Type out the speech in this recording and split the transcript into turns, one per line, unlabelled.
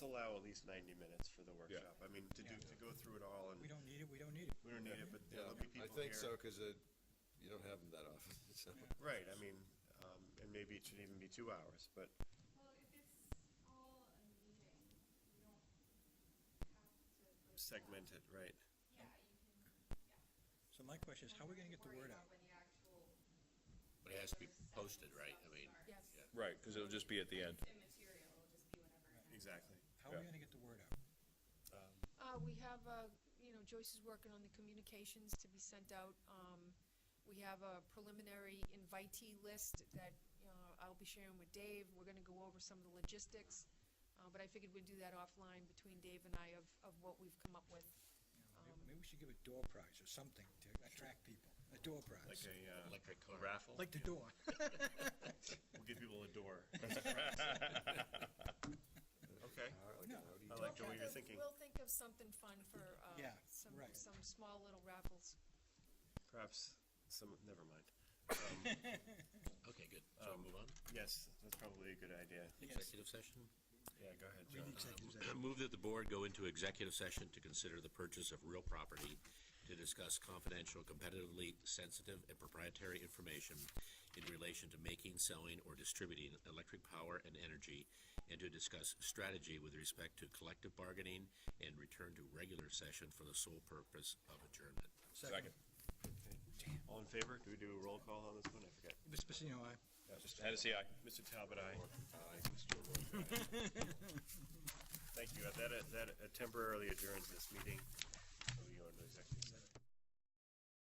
allow at least ninety minutes for the workshop. I mean, to do, to go through it all and
We don't need it, we don't need it.
we don't need it, but
Yeah,
there'll be people
I
here.
think so, because you don't have them that often, so.
Right, I mean, um, and maybe it should even be two hours, but
Well, if it's all a meeting, you don't have to.
segment it, right?
Yeah, you can.
So my question is, how are we gonna get the
Worry
word
about
out?
when the actual
But it has to be
session
posted, right? I
stuff
mean,
starts.
Yes.
Right, because it'll just be at the end.
It's immaterial, it'll just be whatever. it is.
Exactly.
How are we
Yeah.
gonna get the word out?
Uh, we have, uh, you know, Joyce is working on the communications to be sent out. Um, we have a preliminary invitee list that, uh, I'll be sharing with Dave. We're gonna go over some of the logistics. Uh, but I figured we'd do that offline between Dave and I of, of what we've come up with.
You know, maybe- Maybe we should give a door prize or something to attract people, a door
Like
prize,
a, uh,
electric car raffle.
like the door.
we'll give people a door. Okay,
All right, like an
No.
Audi.
I like the way you're thinking.
We'll think of something fun for, uh,
Yeah,
some,
right.
some small little raffles.
Perhaps some, never mind. Um,
Okay, good. So move on.
Yes, that's probably a good idea.
Executive session?
Yeah, go ahead,
We
John.
need executive session.
Move that the board go into executive session to consider the purchase of real property, to discuss confidential, competitively sensitive, and proprietary information in relation to making, selling, or distributing electric power and energy, and to discuss strategy with respect to collective bargaining and return to regular session for the sole purpose of adjournment.
Second.
All in favor? Do we do a roll call on this one? I forget.
Mr. Pacino, aye.
Hennessy, aye.
Mr. Talbot, aye. Thank you. That, that temporarily adjourns this meeting.